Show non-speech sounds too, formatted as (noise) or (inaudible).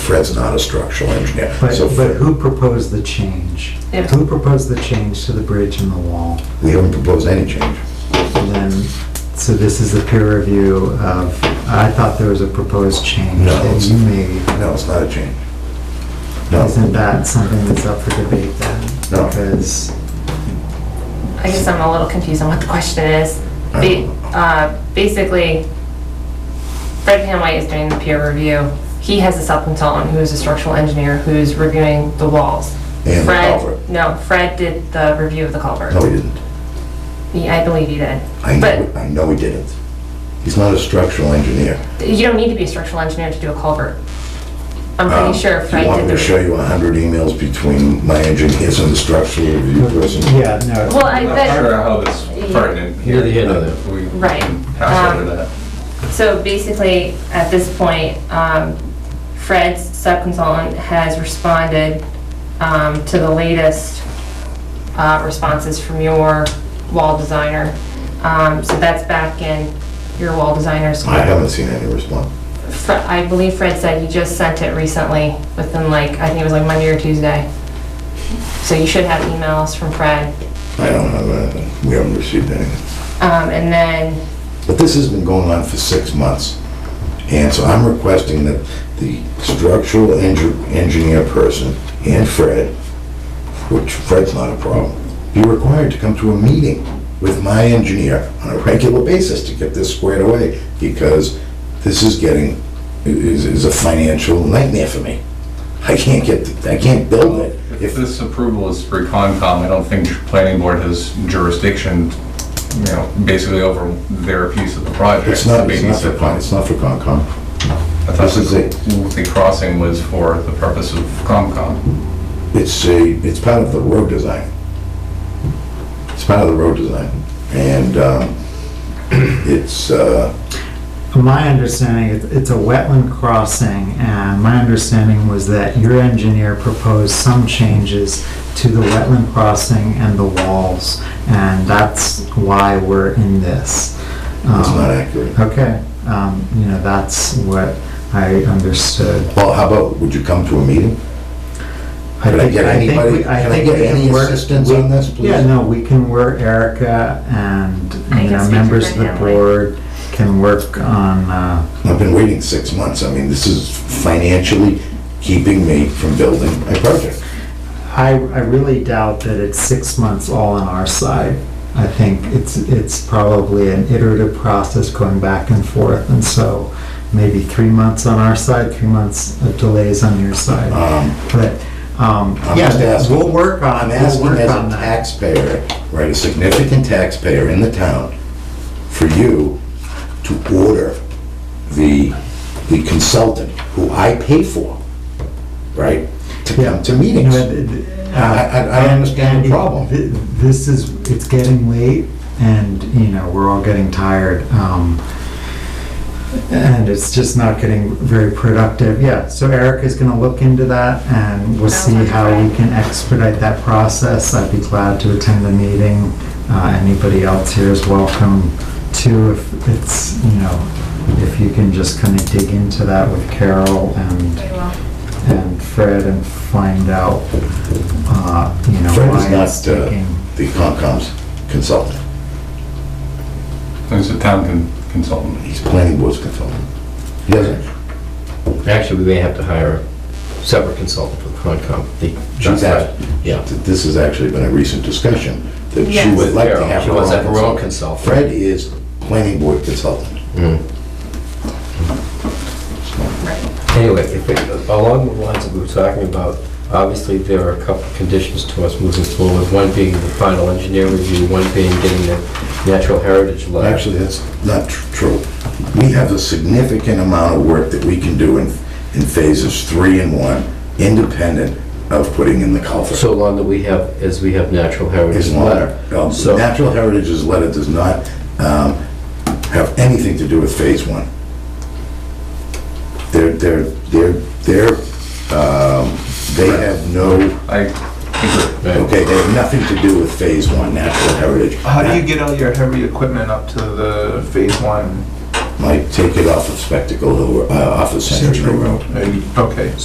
Fred's not a structural engineer. But, So but who proposed the change? Yeah. Who proposed the change to the bridge and the wall? we don't propose any change. And then, so this is a peer review of, I thought there was a proposed change No, that it's- you made. No, it's not a change. No. Isn't that something that's up for debate then? No. Because, I guess I'm a little confused on what the question is. I Ba- don't know. uh, Basically, Fred Van White is doing the peer review. He has a subconsultant who is a structural engineer who's reviewing the walls. And the Fred- culvert. No, Fred did the review of the culvert. No, he didn't. He- I believe he did. I know, But I know he didn't. He's not a structural engineer. you don't need to be a structural engineer to do a culvert. I'm pretty sure Do Uh, you Fred want did me the... to show you a hundred emails between my engineers and the structural review person? yeah, no. Well, I I'm not sure bet, how that's pertinent here. Yeah, yeah, no. We can Right. Pass over Um, that. so basically, at this point, um, Fred's subconsultant has responded um, to the latest uh, responses from your wall designer. Um, So that's back in your wall designer's. I haven't seen any response. Fre- I believe Fred said he just sent it recently, within like, I think it was like Monday or Tuesday. So you should have emails from Fred. I don't have anything. We haven't received anything. Um, And then, But this has been going on for six months. And so I'm requesting that the structural engi- engineer person and Fred, which Fred's not a problem, be required to come to a meeting with my engineer on a regular basis to get this squared away, because this is getting, is, is a financial nightmare for me. I can't get, I can't build it. If this approval is for Concom, I don't think the planning board has jurisdiction, you know, basically over their piece of the project. It's not, They it's need not for to- Con, it's not for Concom. I thought this is the- The crossing was for the purpose of Concom. It's a, it's part of the road design. It's part of the road design. And um, (clears throat) it's, uh, From my understanding, it- it's a wetland crossing, and my understanding was that your engineer proposed some changes to the wetland crossing and the walls, and that's why we're in this. it's Um, not accurate. Okay, um, you know, that's what I understood. Well, how about, would you come to a meeting? I Could I think, get I think, anybody, we- could I I think we get can any work. assistance on this, please? Yeah, no, we can work, Erica and, I you can know, speak to members of the Brian Hanley. board can work on, uh, I've been waiting six months. I mean, this is financially keeping me from building my project. I, I really doubt that it's six months all on our side. I think it's, it's probably an iterative process going back and forth, and so maybe three months on our side, three months of delays on your side. Um, But, um, I'm just yeah, asking- we'll work on, I'm we'll asking work as on a that. taxpayer, right, a significant taxpayer in the town, for you to order the, the consultant who I pay for, right, to come to You meetings. know, th- th- uh, I- I- I understand the and problem. th- This is, it's getting late, and, you know, we're all getting tired. um, And it's just not getting very productive. Yeah, so Eric is gonna look into that, and we'll see Sounds how we right. can expedite that process. I'd be glad to attend the meeting. Uh, Anybody else here is welcome to, if it's, you know, if you can just kind of dig into that with Carol and and Fred and find out, uh, you know, Fred why it's is not uh, taking. the Concom's consultant, There's a town con- consultant. he's planning board's consultant. He doesn't, Actually, we may have to hire a separate consultant for the Concom. The- she's That's asked, right. Yeah. this has actually been a recent discussion, that she Yes. would like to Carol, have she her wants to have her own own consultant. consultant. Fred is planning board consultant. Mm. Anyway, if it, along the lines that we were talking about, obviously there are a couple of conditions to us moving forward, one being the final engineer review, one being getting the natural heritage letter. Actually, that's not tr- true. We have a significant amount of work that we can do in, in phases three and one, independent of putting in the culvert. So long that we have, as we have natural heritage His letter, letter. um, So- Natural Heritage's letter does not um, have anything to do with phase one. They're, they're, they're, they're, um, they have no, I agree. Right. okay, they have nothing to do with phase one, Natural Heritage. How do you get all your heavy equipment up to the phase one? Might take it off of Spectacle Hill, Ro- uh, off of Century Road. Maybe- Okay,